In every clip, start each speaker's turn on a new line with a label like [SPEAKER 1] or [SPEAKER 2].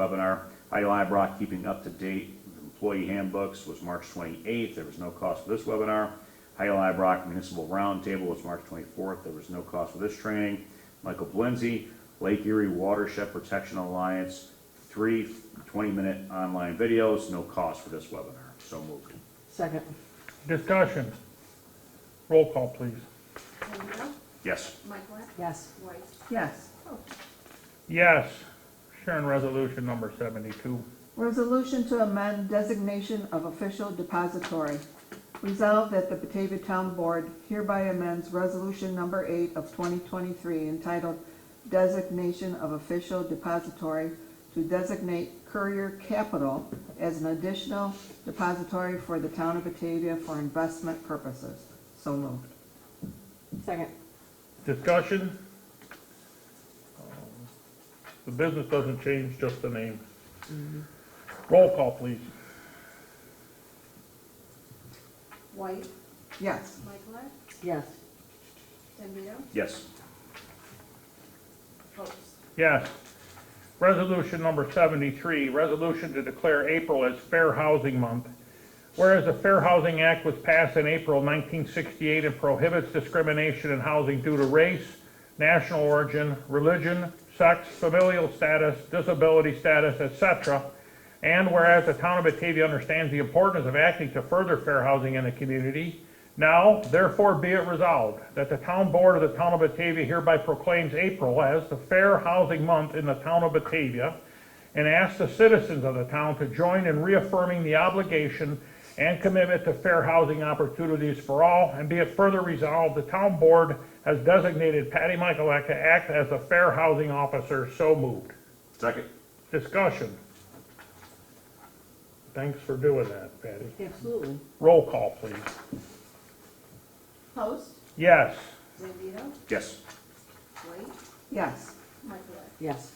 [SPEAKER 1] webinar. IDLI brought keeping up to date with employee handbooks was March 28th, there was no cost for this webinar. IDLI Brock Municipal Roundtable was March 24th, there was no cost for this training. Michael Blenzy, Lake Erie Watershed Protection Alliance, three 20-minute online videos, no cost for this webinar, so moved.
[SPEAKER 2] Second.
[SPEAKER 3] Discussion. Roll call, please.
[SPEAKER 4] Andrew,
[SPEAKER 1] Yes,
[SPEAKER 4] Michaelak,
[SPEAKER 2] Yes.
[SPEAKER 4] White.
[SPEAKER 5] Yes.
[SPEAKER 3] Yes. Sharon, resolution number 72.
[SPEAKER 5] Resolution to amend designation of official depository. Resolved that the Batavia Town Board hereby amends Resolution Number 8 of 2023 entitled Designation of Official Depository to designate Courier Capital as an additional depository for the town of Batavia for investment purposes. So moved.
[SPEAKER 2] Second.
[SPEAKER 3] Discussion. The business doesn't change, just the name. Roll call, please.
[SPEAKER 4] White,
[SPEAKER 5] Yes.
[SPEAKER 4] Michaelak,
[SPEAKER 2] Yes.
[SPEAKER 4] Andrew,
[SPEAKER 1] yes,
[SPEAKER 4] Post.
[SPEAKER 3] Yes. Resolution number 73, resolution to declare April as Fair Housing Month. Whereas the Fair Housing Act was passed in April 1968 and prohibits discrimination in housing due to race, national origin, religion, sex, familial status, disability status, etc. And whereas the town of Batavia understands the importance of acting to further fair housing in the community, now therefore be it resolved that the town board of the town of Batavia hereby proclaims April as the Fair Housing Month in the town of Batavia and asks the citizens of the town to join in reaffirming the obligation and commitment to fair housing opportunities for all, and be it further resolved, the town board has designated Patty Michaelak to act as the fair housing officer, so moved.
[SPEAKER 1] second,
[SPEAKER 3] Discussion. Thanks for doing that, Patty.
[SPEAKER 2] Absolutely.
[SPEAKER 3] Roll call, please.
[SPEAKER 4] Post,
[SPEAKER 3] Yes.
[SPEAKER 4] Andrew,
[SPEAKER 1] yes,
[SPEAKER 4] White,
[SPEAKER 5] Yes.
[SPEAKER 4] Michaelak.
[SPEAKER 2] Yes.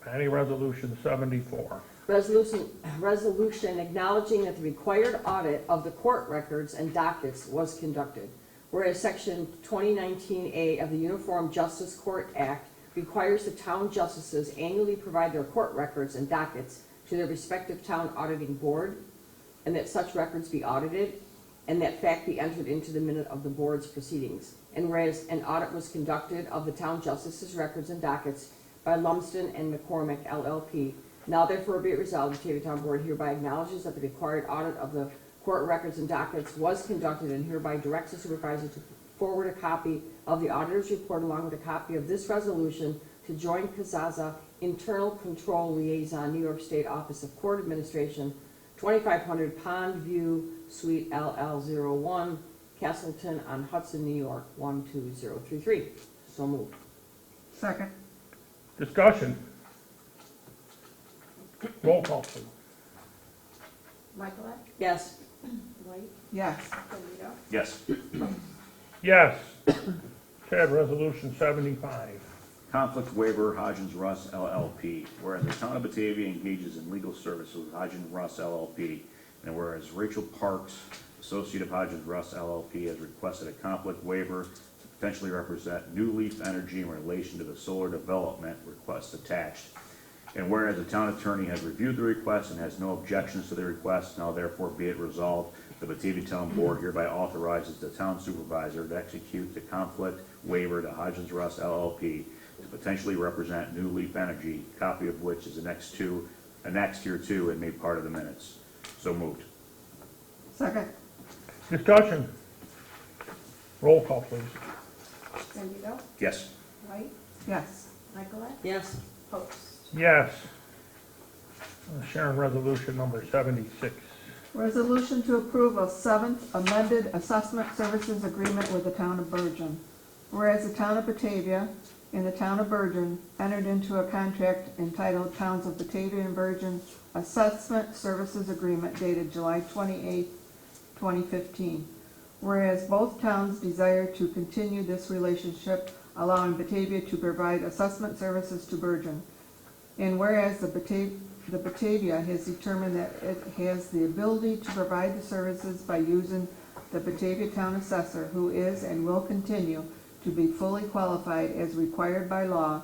[SPEAKER 3] Patty, resolution seventy-four.
[SPEAKER 2] Resolution, resolution acknowledging that the required audit of the court records and dockets was conducted. Whereas section 2019A of the Uniform Justice Court Act requires the town justices annually provide their court records and dockets to their respective town auditing board, and that such records be audited, and that fact be entered into the minute of the board's proceedings. And whereas an audit was conducted of the town justices' records and dockets by Lumsden and McCormick LLP, now therefore be it resolved, the Batavia Town Board hereby acknowledges that the required audit of the court records and dockets was conducted and hereby directs the supervisor to forward a copy of the auditor's report along with a copy of this resolution to join Kazaza Internal Control Liaison, New York State Office of Court Administration, 2500 Pond View Suite LL01, Castleton on Hudson, New York, 12033. So moved.
[SPEAKER 5] Second.
[SPEAKER 3] Discussion. Roll call, please.
[SPEAKER 4] Michaelak,
[SPEAKER 2] Yes.
[SPEAKER 4] White,
[SPEAKER 5] Yes.
[SPEAKER 4] Andrew,
[SPEAKER 1] yes.
[SPEAKER 3] Yes. Chad, resolution seventy-five.
[SPEAKER 1] Conflict waiver, Hodgins Russ LLP. Whereas the town of Batavia engages in legal services with Hodgins Russ LLP, and whereas Rachel Parks, associate of Hodgins Russ LLP, has requested a conflict waiver to potentially represent New Leaf Energy in relation to the solar development request attached. And whereas the town attorney has reviewed the request and has no objections to the request, now therefore be it resolved, the Batavia Town Board hereby authorizes the town supervisor to execute the conflict waiver to Hodgins Russ LLP to potentially represent New Leaf Energy, copy of which is annexed to, annexed here too and made part of the minutes. So moved.
[SPEAKER 5] Second.
[SPEAKER 3] Discussion. Roll call, please.
[SPEAKER 4] Andrew,
[SPEAKER 1] Yes,
[SPEAKER 4] White,
[SPEAKER 5] Yes.
[SPEAKER 4] Michaelak,
[SPEAKER 2] Yes.
[SPEAKER 4] Post.
[SPEAKER 3] Yes. Sharon, resolution number seventy-six.
[SPEAKER 5] Resolution to approve a seventh amended assessment services agreement with the town of Bergen. Whereas the town of Batavia and the town of Bergen entered into a contract entitled Towns of Batavia and Bergen Assessment Services Agreement dated July twenty-eighth, twenty fifteen. Whereas both towns desire to continue this relationship, allowing Batavia to provide assessment services to Bergen. And whereas the Batavia, the Batavia has determined that it has the ability to provide the services by using the Batavia Town Assessor, who is and will continue to be fully qualified as required by law